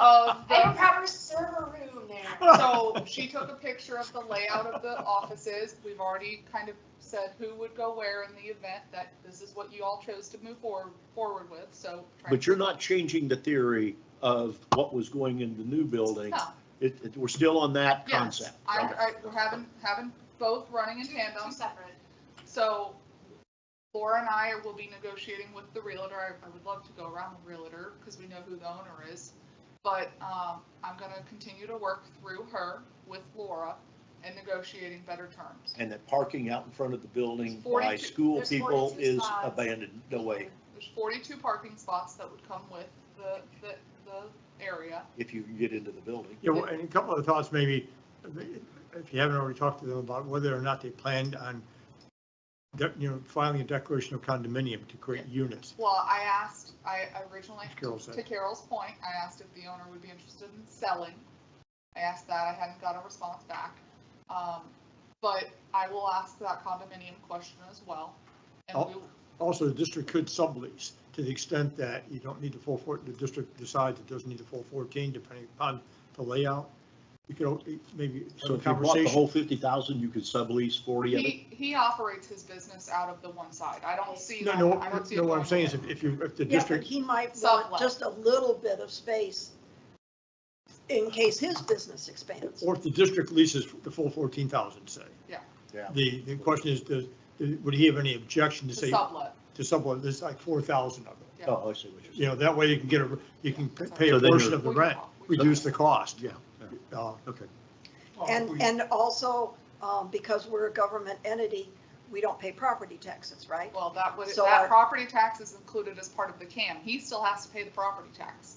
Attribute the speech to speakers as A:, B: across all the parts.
A: of the proper server room
B: Oh,
A: there.
C: So she took a picture of the layout of the offices. We've already kind of said who would go where in the event that this is what you all chose to move forward, forward with, so.
D: But you're not changing the theory of what was going in the new building.
C: No,
D: It, it, we're still on that
C: yes,
D: concept.
C: I,
D: Okay.
C: I, we're having, having both running in
A: Two,
C: tandem.
A: two separate.
C: So Laura and I will be negotiating with the realtor. I- I would love to go around the realtor because we know who the owner is. But um, I'm going to continue to work through her with Laura and negotiating better terms.
D: And that parking out in front of the building by
C: 42
D: school
A: there's
D: people
A: 42
D: is
A: spots.
D: abandoned, no way.
C: There's 42 parking spots that would come with the, the, the area.
D: if you can get into the building.
E: Yeah, well, and a couple of thoughts maybe, if you haven't already talked to them about whether or not they planned on, de- you know, filing a declaration of condominium to create units.
C: Well, I asked, I originally,
E: As Carol said.
C: to Carol's point, I asked if the owner would be interested in selling. I asked that, I hadn't got a response back. Um, But I will ask that condominium question as well. And
E: Oh,
C: we,
E: Also, the district could sublease to the extent that you don't need the full four, the district decides it doesn't need the full 14, depending upon the layout. You could al- maybe have
D: So
E: a
D: if you bought the whole
E: conversation.
D: fifty thousand, you could sublease forty of it?
C: he, he operates his business out of the one side. I don't see
E: No,
C: that.
E: no,
C: I don't see it
E: no, what
C: going
E: I'm saying is
C: away.
E: if if you, if the
B: Yeah, but
E: district,
B: he might
C: Sublet.
B: want just a little bit of space in case his business expands.
E: or if the district leases the full 14,000, say.
D: Yeah.
E: The, the question is, does, would he have any objection to
C: To
E: say,
C: sublet,
E: to someone, there's like 4,000 of them?
C: yeah.
D: Oh, I see what you're
E: You
D: saying.
E: know, that way you can get a, you can pay
D: So
E: a
D: then
E: portion
D: you're-
E: of the
C: We
E: rent,
C: can- we can-
E: reduce the cost.
D: Yeah,
E: Uh,
D: okay.
B: And, and also, um, because we're a government entity, we don't pay property taxes, right?
C: Well, that would,
B: So
C: that
B: our-
C: property tax is included as part of the CAM. He still has to pay the property tax.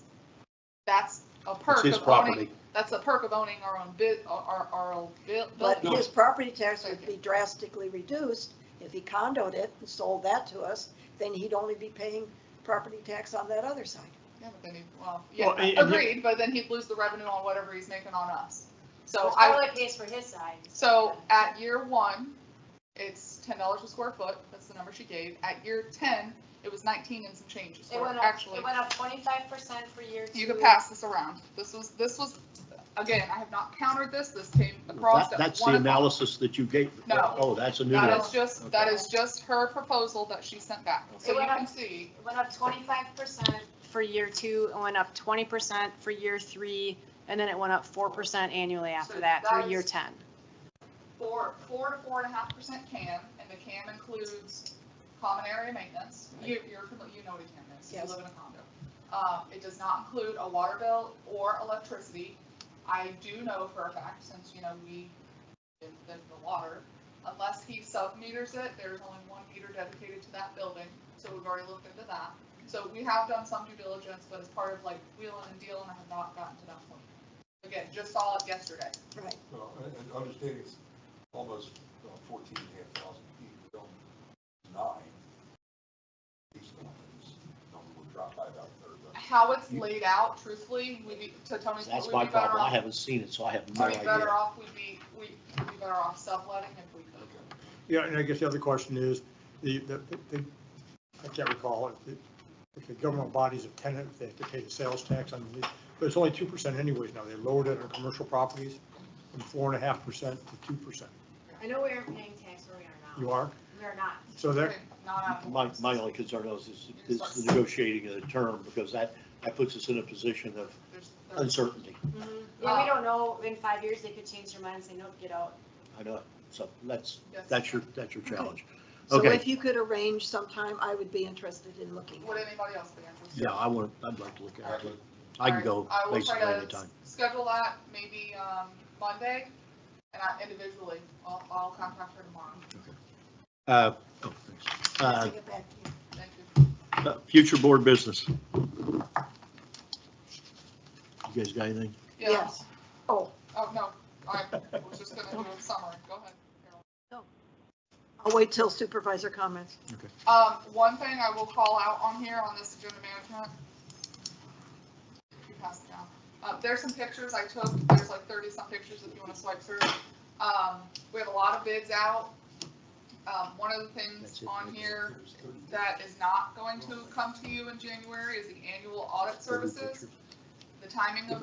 C: That's a
D: It's
C: perk
D: his
C: of owning,
D: property.
C: that's a perk of owning our own bid, our, our own buil-
B: But
C: building.
B: his property tax would be drastically reduced if he condoed it and sold that to us, then he'd only be paying property tax on that other side.
C: Yeah, but then he, well,
E: Well, and-
C: yeah,
E: and he-
C: agreed, but then he'd lose the revenue on whatever he's making on us. So
A: Which
C: I,
A: probably pays for his side.
C: so at year one, it's ten dollars a square foot. That's the number she gave. At year ten, it was nineteen and some changes.
A: It went up,
C: Actually,
A: it went up twenty-five percent for year two.
C: you could pass this around. This was, this was, again, I have not countered this. This came across.
D: That-
C: at
D: That's
C: one
D: the
C: o'clock.
D: analysis that you gave.
C: No.
D: Oh, that's a new
C: That
D: one.
C: is just, that is just her proposal that she sent back. So you can see,
A: It went up twenty-five percent for year two, it went up twenty percent for year three, and then it went up four percent annually
C: So
A: after that through
C: that
A: year
C: is-
A: ten.
C: four, four to four and a half percent CAM, and the CAM includes common area maintenance. You, you're, fami- you know what a CAM is, you
B: Yes.
C: live in a condo. Um, it does not include a water bill or electricity. I do know for a fact, since, you know, we, did the the water, unless he sub-meters it, there's only one meter dedicated to that building, so we've already looked into that. So we have done some due diligence, but as part of like wheeling and dealing, I have not gotten to that point. Again, just saw it yesterday.
B: Right.
F: Well, and, and understanding it's almost uh, fourteen and a half thousand feet, we don't deny these numbers, number would drop by about a third. but-
C: how it's laid out, truthfully, we'd be, to Tony's point,
D: That's
C: we'd
D: my
C: be better
D: problem. I
C: off.
D: haven't seen it, so I have no
C: We'd be better
D: idea.
C: off, we'd be, we'd be better off subletting if we could.
F: Okay.
E: yeah, and I guess the other question is, the, the, the- I can't recall if the, if the government body's a tenant, if they have to pay the sales tax on, the but it's only 2% anyways now. They lowered it on commercial properties from 4.5% to 2%.
G: I know we aren't paying tax where we are
E: You
G: now.
E: are?
G: We are not.
E: So that,
C: Okay, Not out of
D: My,
C: the
D: my
C: box.
D: only concern is, is is the negotiating of the term, because that, that puts us in a position of
C: There's- there's-
D: uncertainty.
A: Mm-hmm.
G: Yeah, we don't know, in five years, they could change their mind and say, nope, get out.
D: I know, so that's,
C: yes.
D: that's your, that's your challenge.
B: So
D: Okay.
B: if you could arrange sometime, I would be interested in looking.
C: Would anybody else be interested?
D: Yeah, I want, I'd like to look at it. I can go
C: Alright, I will try
D: basically
C: to
D: anytime.
C: Schedule that maybe, um, Monday, and I individually, I'll, I'll contact her tomorrow.
D: Uh, oh, thanks. Uh,
B: Take it back to you.
C: Thank you.
D: Uh, Future board business. You guys got anything?
C: Yeah.
B: Yes. Oh,
C: Oh, no, I was just gonna do a summary, go ahead. Carol.
B: I'll wait till supervisor comments.
C: Um, one thing I will call out on here on this agenda management. You pass it down. Uh, there's some pictures I took, there's like thirty some pictures if you wanna swipe through. Um, we have a lot of bids out. Um, one of the
D: That's
C: things
D: it.
C: on here
F: There's thirty days.
C: that is not going to come to you in January is the annual audit services. the timing of